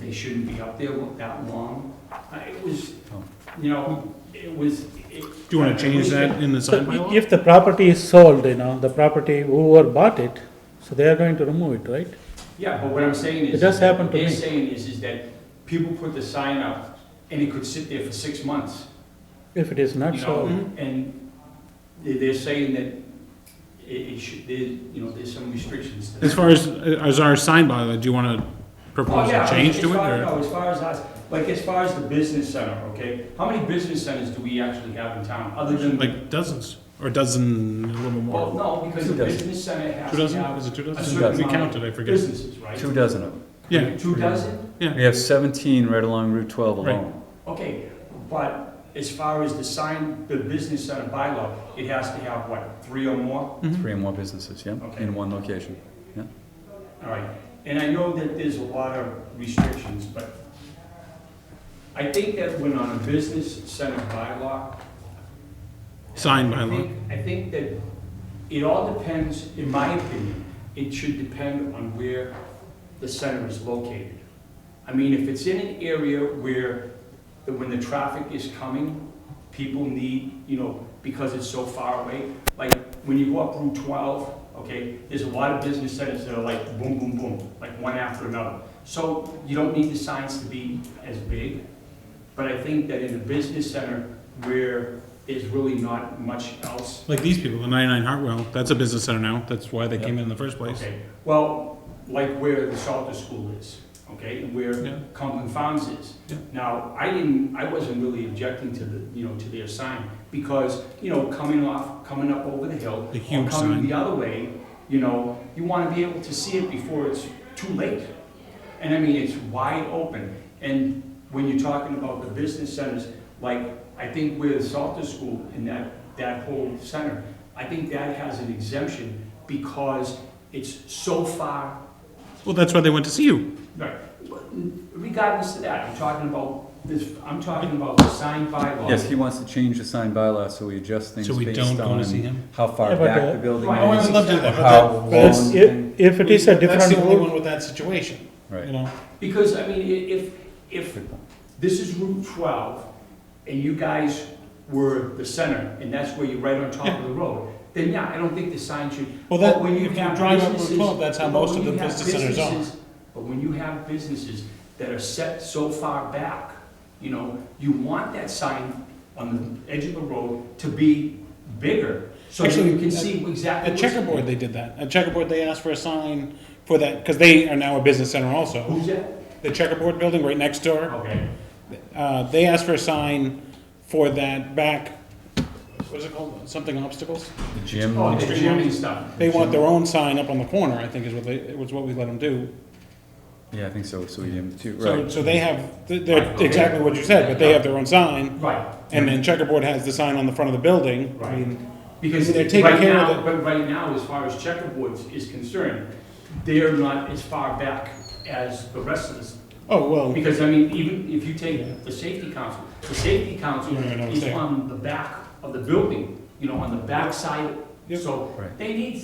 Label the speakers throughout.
Speaker 1: they shouldn't be up there that long. Uh, It was,
Speaker 2: Oh.
Speaker 1: you know, it was. Do
Speaker 2: Do you want to change that in the sign
Speaker 3: So
Speaker 2: bylaw?
Speaker 3: i- if the property is sold, you know, the property, whoever bought it, so they are going to remove it, right?
Speaker 1: Yeah, but what I'm saying is.
Speaker 3: It does happen to
Speaker 1: They're
Speaker 3: me.
Speaker 1: saying is, is that people put the sign up and it could sit there for six months,
Speaker 3: If it is not
Speaker 1: you know?
Speaker 3: sold,
Speaker 1: And they- they're saying that it, it should, there, you know, there's some restrictions to that.
Speaker 2: As far as, as our sign bylaw, do you want to
Speaker 1: Oh,
Speaker 2: propose
Speaker 1: yeah,
Speaker 2: a change
Speaker 1: as-
Speaker 2: to
Speaker 1: as
Speaker 2: it,
Speaker 1: far-
Speaker 2: or?
Speaker 1: No, as far as us, like, as far as the business center, okay? How many business centers do we actually have in town, other than?
Speaker 2: Like dozens, or dozen, a little
Speaker 1: Well,
Speaker 2: more?
Speaker 1: no, because the
Speaker 4: Two dozen.
Speaker 1: business center has
Speaker 2: Two
Speaker 1: to
Speaker 2: dozen, is
Speaker 1: have
Speaker 2: it two
Speaker 1: a
Speaker 2: dozen?
Speaker 1: certain
Speaker 2: We
Speaker 1: amount
Speaker 2: counted,
Speaker 1: of
Speaker 2: I forget.
Speaker 1: businesses, right?
Speaker 4: Two dozen of them.
Speaker 2: Yeah,
Speaker 1: Two dozen?
Speaker 4: We have 17 right along Route 12
Speaker 2: Right.
Speaker 4: alone.
Speaker 1: Okay, but as far as the sign, the business center bylaw, it has to have, what, three or more?
Speaker 2: Mm-hmm.
Speaker 4: Three or more businesses, yeah,
Speaker 1: Okay.
Speaker 4: in one location.
Speaker 1: All right, and I know that there's a lot of restrictions, but I think that when on a business center bylaw,
Speaker 2: sign
Speaker 1: I
Speaker 2: bylaw.
Speaker 1: think, I think that it all depends, in my opinion, it should depend on where the center is located. I mean, if it's in an area where, that when the traffic is coming, people need, you know, because it's so far away, like, when you go up Route twelve, okay, there's a lot of business centers that are like boom, boom, boom, like one after another. So you don't need the signs to be as big, but I think that in a business center where there's really not much else
Speaker 2: Like these people, the 99 Hartwell, that's a business center now, that's why they came in in the first place.
Speaker 1: Okay, well, like where the Salter School is, okay, and where
Speaker 2: Yeah.
Speaker 1: Conklin Farms is.
Speaker 2: Yeah.
Speaker 1: Now, I didn't, I wasn't really objecting to the, you know, to their sign, because, you know, coming off, coming up over the hill,
Speaker 2: The
Speaker 1: or
Speaker 2: huge
Speaker 1: coming
Speaker 2: sign.
Speaker 1: the other way, you know, you wanna be able to see it before it's too late. And I mean, it's wide open, and when you're talking about the business centers, like, I think where the Salter School and that, that whole center, I think that has an exemption because it's so far,
Speaker 2: Well, that's why they went to see you.
Speaker 1: right, regardless of that, I'm talking about this, I'm talking about the sign bylaw.
Speaker 4: Yes, he wants to change the sign bylaw, so we adjust things
Speaker 2: So we don't
Speaker 4: based
Speaker 2: go to see
Speaker 4: on
Speaker 2: him?
Speaker 4: how
Speaker 3: Yeah,
Speaker 4: far
Speaker 3: but,
Speaker 4: back
Speaker 3: uh,
Speaker 4: the building
Speaker 1: Right. Oh, I
Speaker 4: is,
Speaker 1: would love to do
Speaker 2: that, but
Speaker 4: how
Speaker 2: that-
Speaker 4: long.
Speaker 3: But if, if it is a
Speaker 2: That's
Speaker 3: different
Speaker 2: the only one
Speaker 3: road,
Speaker 2: with that situation, you
Speaker 4: Right.
Speaker 2: know?
Speaker 1: Because, I mean, i- if, if
Speaker 4: Good point.
Speaker 1: this is Route 12, and you guys were the center, and that's where you're right on top of the road, then yeah, I don't think the sign should.
Speaker 2: Well, that-
Speaker 1: But when
Speaker 2: if you
Speaker 1: have
Speaker 2: drive up Route
Speaker 1: businesses-
Speaker 2: 12, that's how
Speaker 1: but
Speaker 2: most
Speaker 1: when
Speaker 2: of the
Speaker 1: you have
Speaker 2: business centers are.
Speaker 1: businesses- But when you have businesses that are set so far back, you know, you want that sign on the edge of the road to be bigger, so that
Speaker 2: Actually,
Speaker 1: you can
Speaker 2: at-
Speaker 1: see exactly.
Speaker 2: At
Speaker 1: what's-
Speaker 2: Checkerboard, they did that. At Checkerboard, they asked for a sign for that, because they are now a business center also.
Speaker 1: Who's that?
Speaker 2: The Checkerboard building right next door,
Speaker 1: Okay.
Speaker 2: uh, they asked for a sign for that back, what is it called, something obstacles?
Speaker 4: The gym,
Speaker 1: Oh, the
Speaker 2: Extreme
Speaker 1: gym and
Speaker 2: Homes.
Speaker 1: stuff.
Speaker 2: They want their own sign up on the corner, I think is what they, was what we let them do.
Speaker 4: yeah, I think so, so we did too,
Speaker 2: So,
Speaker 4: right.
Speaker 2: so they have, they're exactly what you said, but they have their own sign,
Speaker 1: Right.
Speaker 2: and then Checkerboard has the sign on the front of the building. I
Speaker 1: Right.
Speaker 2: mean,
Speaker 1: Because
Speaker 2: They're taking
Speaker 1: right
Speaker 2: care of
Speaker 1: now,
Speaker 2: the-
Speaker 1: but right now, as far as checkerboards is concerned, they're not as far back as the rest of us.
Speaker 2: Oh, well,
Speaker 1: Because, I mean, even if you take the safety council, the safety council
Speaker 2: Yeah, I know what
Speaker 1: is
Speaker 2: you're saying.
Speaker 1: on the back of the building, you know, on the back side.
Speaker 2: Yep.
Speaker 1: So
Speaker 4: Right.
Speaker 1: they need,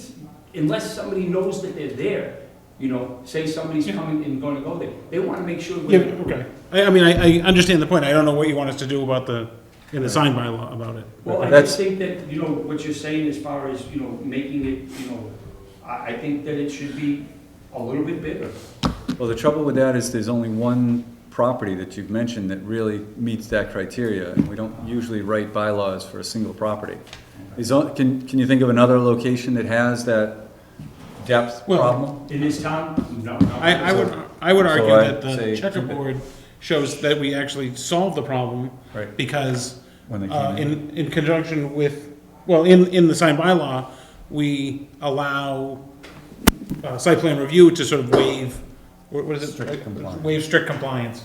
Speaker 1: unless somebody knows that they're there, you know, say somebody's
Speaker 2: Yeah.
Speaker 1: coming and gonna go there, they wanna make sure.
Speaker 2: yeah,
Speaker 1: when-
Speaker 2: okay. I, I mean, I, I understand the point, I don't know what you want us to do about the, in the sign bylaw about it.
Speaker 1: Well, I
Speaker 4: That's-
Speaker 1: just think that, you know, what you're saying as far as, you know, making it, you know, I, I think that it should be a little bit bigger.
Speaker 4: Well, the trouble with that is there's only one property that you've mentioned that really meets that criteria, and we don't usually write bylaws for a single property. Is, on- can, can you think of another location that has that depth
Speaker 2: Well,
Speaker 4: problem?
Speaker 1: In this town, no, no.
Speaker 2: I, I would, I would
Speaker 4: So
Speaker 2: argue
Speaker 4: I
Speaker 2: that
Speaker 4: say
Speaker 2: the
Speaker 4: keep it.
Speaker 2: checkerboard shows that we actually solved the problem.
Speaker 4: Right.
Speaker 2: Because,
Speaker 4: When they
Speaker 2: uh,
Speaker 4: came in.
Speaker 2: in, in conjunction with, well, in, in the sign bylaw, we allow, uh, site plan review to sort of waive, what what is it?
Speaker 4: Strict compliance.
Speaker 2: Waive strict compliance.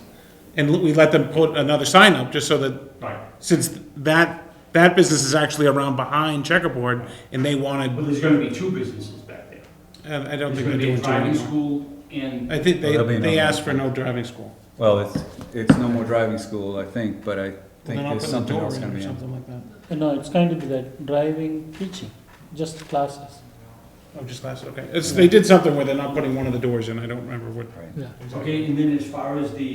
Speaker 2: And we let them put another sign up, just so that
Speaker 1: Right,
Speaker 2: since that, that business is actually around behind Checkerboard, and they
Speaker 1: but
Speaker 2: wanted,
Speaker 1: there's gonna be two businesses back there.
Speaker 2: and I don't
Speaker 1: There's
Speaker 2: think they're
Speaker 1: gonna be a
Speaker 2: doing two
Speaker 1: driving
Speaker 2: anymore.
Speaker 1: school and,
Speaker 2: I think
Speaker 4: Oh,
Speaker 2: they,
Speaker 4: there'll be
Speaker 2: they
Speaker 4: another.
Speaker 2: asked for no driving school.
Speaker 4: Well, it's, it's no more driving school, I think, but I
Speaker 2: Well,
Speaker 4: think
Speaker 2: then I'll
Speaker 4: there's
Speaker 2: put the
Speaker 4: something
Speaker 2: door
Speaker 4: else
Speaker 2: in
Speaker 4: gonna
Speaker 2: or
Speaker 4: be. in.
Speaker 2: Something like that.
Speaker 5: You know, it's going to be that driving, teaching, just classes.
Speaker 2: Oh, just glasses, okay. It's, they did something where they're not putting one of the doors in, I don't remember what.
Speaker 4: Right.
Speaker 5: Yeah.
Speaker 1: okay, and then as far as the